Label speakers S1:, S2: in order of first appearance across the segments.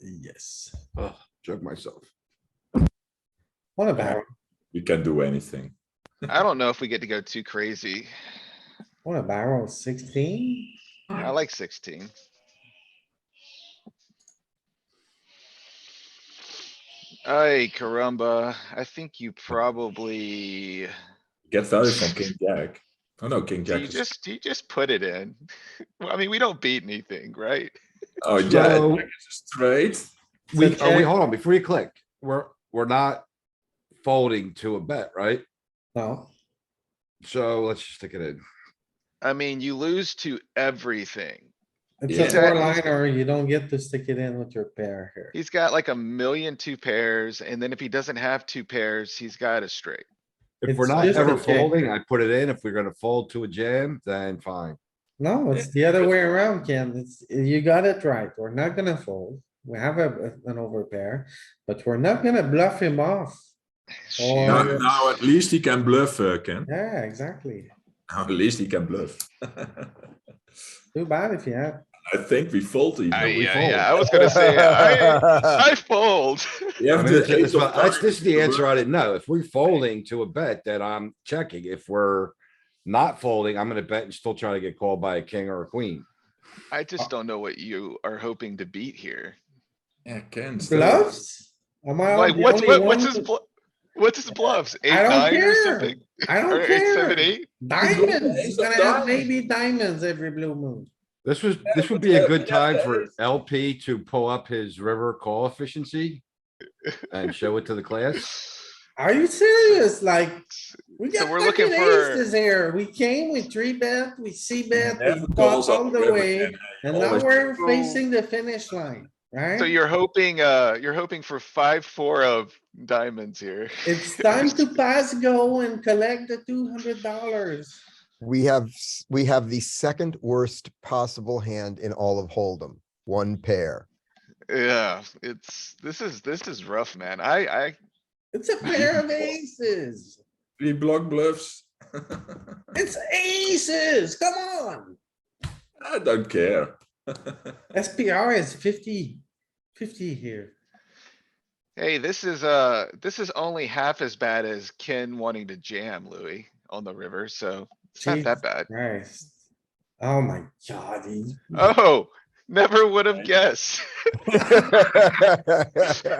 S1: Yes.
S2: Ugh,
S3: Chug myself.
S1: What a barrel,
S2: You can do anything.
S4: I don't know if we get to go too crazy.
S1: what a barrel, sixteen?
S4: I like sixteen. Ay, caramba, I think you probably,
S2: Get value from king jack. Oh no, king
S4: do
S2: jack
S4: you
S2: is,
S4: just, do you just put it in? Well, I mean, we don't beat anything, right?
S2: oh yeah,
S3: So-
S2: jack is straight.
S3: We, oh,
S1: check.
S3: wait, hold on, before you click, we're, we're not folding to a bet, right?
S1: No,
S3: So let's just stick it in.
S4: I mean, you lose to everything.
S1: it's
S2: Yeah.
S1: a four liner, you don't get to stick it in with your pair here.
S4: He's got like a million two pairs, and then if he doesn't have two pairs, he's got a straight.
S3: If we're
S1: It's
S3: not
S1: just
S3: ever
S1: a check.
S3: folding, I put it in. If we're gonna fold to a jam, then fine.
S1: No, it's the other way around, Ken. It's, you got it right. We're not gonna fold. We have a, an overpair, but we're not gonna bluff him off. Oh,
S2: Now,
S1: yeah.
S2: now at least he can bluff, uh, Ken.
S1: Yeah, exactly.
S2: Now at least he can bluff. I
S1: Too bad if you had.
S2: think we fold even.
S4: I,
S2: We
S4: yeah,
S2: fold.
S4: yeah, I was gonna say, I, I fold.
S2: You
S3: I
S2: have
S3: mean,
S2: the
S3: that's-
S2: ace
S3: that's
S2: of
S3: what- that's-
S2: diamonds
S3: This is the
S2: to
S3: answer
S2: bluff.
S3: I didn't know. If we're folding to a bet, then I'm checking. If we're not folding, I'm gonna bet and still try to get called by a king or a queen.
S1: Uh,
S4: I just don't know what you are hoping to beat here.
S2: Yeah, Ken. still.
S1: Gloves? Am I
S4: Like,
S1: the
S4: what's,
S1: only
S4: what- what's
S1: one
S4: his,
S1: who-
S4: blu- what's his bluffs? Eight,
S1: I don't
S4: nine or
S1: care.
S4: something?
S1: I
S4: Or
S1: don't
S4: eight,
S1: care.
S4: seven, eight?
S1: Diamonds, he's
S2: Ace of
S1: gonna have
S2: diamonds.
S1: maybe diamonds every blue moon.
S3: This was,
S2: Yeah,
S3: this would
S2: but
S3: be a
S2: yeah,
S3: good
S2: but yeah,
S3: time
S2: that
S3: for
S2: is-
S3: LP to pull up his river call efficiency and show it to the class.
S1: Are you serious? Like, we
S4: So
S1: got
S4: we're looking
S1: fucking
S4: for-
S1: aces here. We came with three bet, we see bet,
S2: Never
S1: we
S2: calls
S1: caught
S2: up
S1: all the
S2: river,
S1: way.
S2: Ken.
S1: And now
S2: always-
S1: we're
S4: So-
S1: facing the finish line,
S4: So
S1: right?
S4: you're hoping, uh, you're hoping for five, four of diamonds here.
S1: It's time to pass go and collect the two hundred dollars.
S5: We have, s- we have the second worst possible hand in all of Hold'em, one pair.
S4: Yeah, it's, this is, this is rough, man. I, I,
S1: It's a pair of aces.
S2: Three block bluffs.
S1: It's aces, come on.
S2: I don't care.
S1: SPR is 50, 50 here.
S4: hey, this is, uh, this is only half as bad as Ken wanting to jam Louis on the river, so it's not that bad.
S1: Christ. Oh my god, he-
S4: Oh, never would have guessed.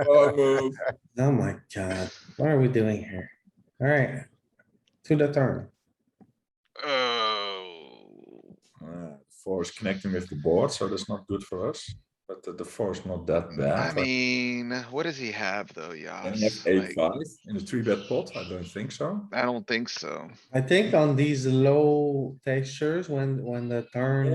S2: Oh, move.
S1: oh my god, what are we doing here? Alright, to the turn.
S4: Oh.
S2: Uh, Four is connecting with the board, so that's not good for us, but the- the four is not that
S4: I
S2: bad. like,
S4: mean, what does he have though,
S2: can he
S4: Yas?
S2: have Eight,
S4: Like,
S2: five in the three bet pot, I don't think so.
S4: I don't think so.
S1: I think on these low textures, when, when the
S4: Mm.
S1: turn,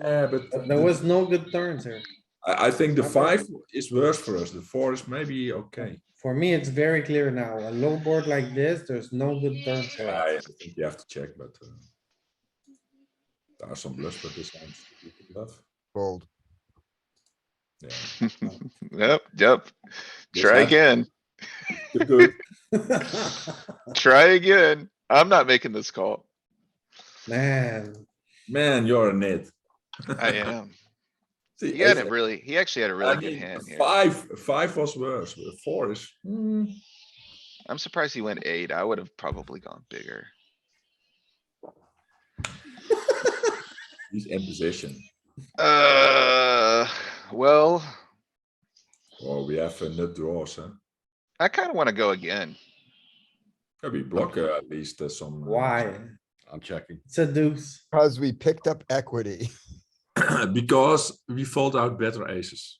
S2: Yeah, but
S1: there
S2: the-
S1: was no good turns here.
S2: I, I think the five is worse for us, the four is maybe okay.
S1: For me, it's very clear now, a low board like this, there's no good turns for
S2: Yeah, I
S1: us.
S2: think you have to check, but uh, there are some bluffs, but this hand you can bluff.
S5: Fold.
S2: Yeah,
S4: Yep, yep.
S2: Yes,
S4: Try
S2: ma'am.
S4: again.
S2: too good.
S4: Try again. I'm not making this call.
S1: Man,
S2: Man, you're an it.
S4: I am.
S2: See,
S4: He had
S2: ace-
S4: a really, he actually had a
S2: I
S4: really good
S2: mean,
S4: hand here.
S2: Five, five was worse, but four is, hmm,
S4: I'm surprised he went eight. I would have probably gone bigger.
S2: he's in position.
S4: Uh, well,
S2: Oh, we have uh, nut draws, huh?
S4: I kinda wanna go again.
S2: Yeah, we block uh, at least uh, some. uh,
S1: why?
S3: I'm checking.
S1: It's a deuce.
S5: Cause we picked up equity.
S2: Because we fold out better aces.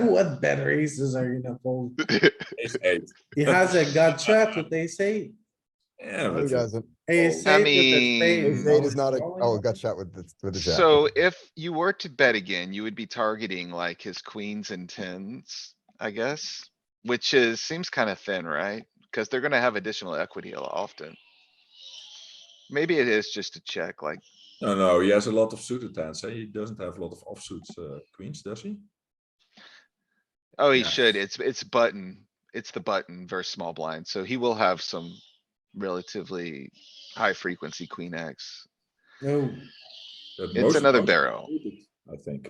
S1: What better aces are you gonna fold?
S2: Ace eight.
S1: He has a gut shot, what they say.
S2: Yeah,
S5: Who
S2: but
S5: doesn't?
S1: Ace eight
S4: I
S1: with a spade
S4: mean-
S5: Ace
S1: is
S5: Eight
S1: always
S5: is not a,
S1: going.
S5: oh, gut shot with the, with the jack.
S4: So if you were to bet again, you would be targeting like his queens and tens, I guess, which is, seems kinda thin, right? Cuz they're gonna have additional equity a- often. Maybe it is just to check, like,
S2: no, no, he has a lot of suited hands. eh? He doesn't have a lot of offsuit uh, queens, does he?
S4: oh, he
S2: Yeah.
S4: should, it's, it's button, it's the button versus small blind, so he will have some relatively high frequency queen X.
S1: No.
S2: But
S4: It's
S2: most of
S4: another
S2: us are
S4: barrel.
S2: suited, I think.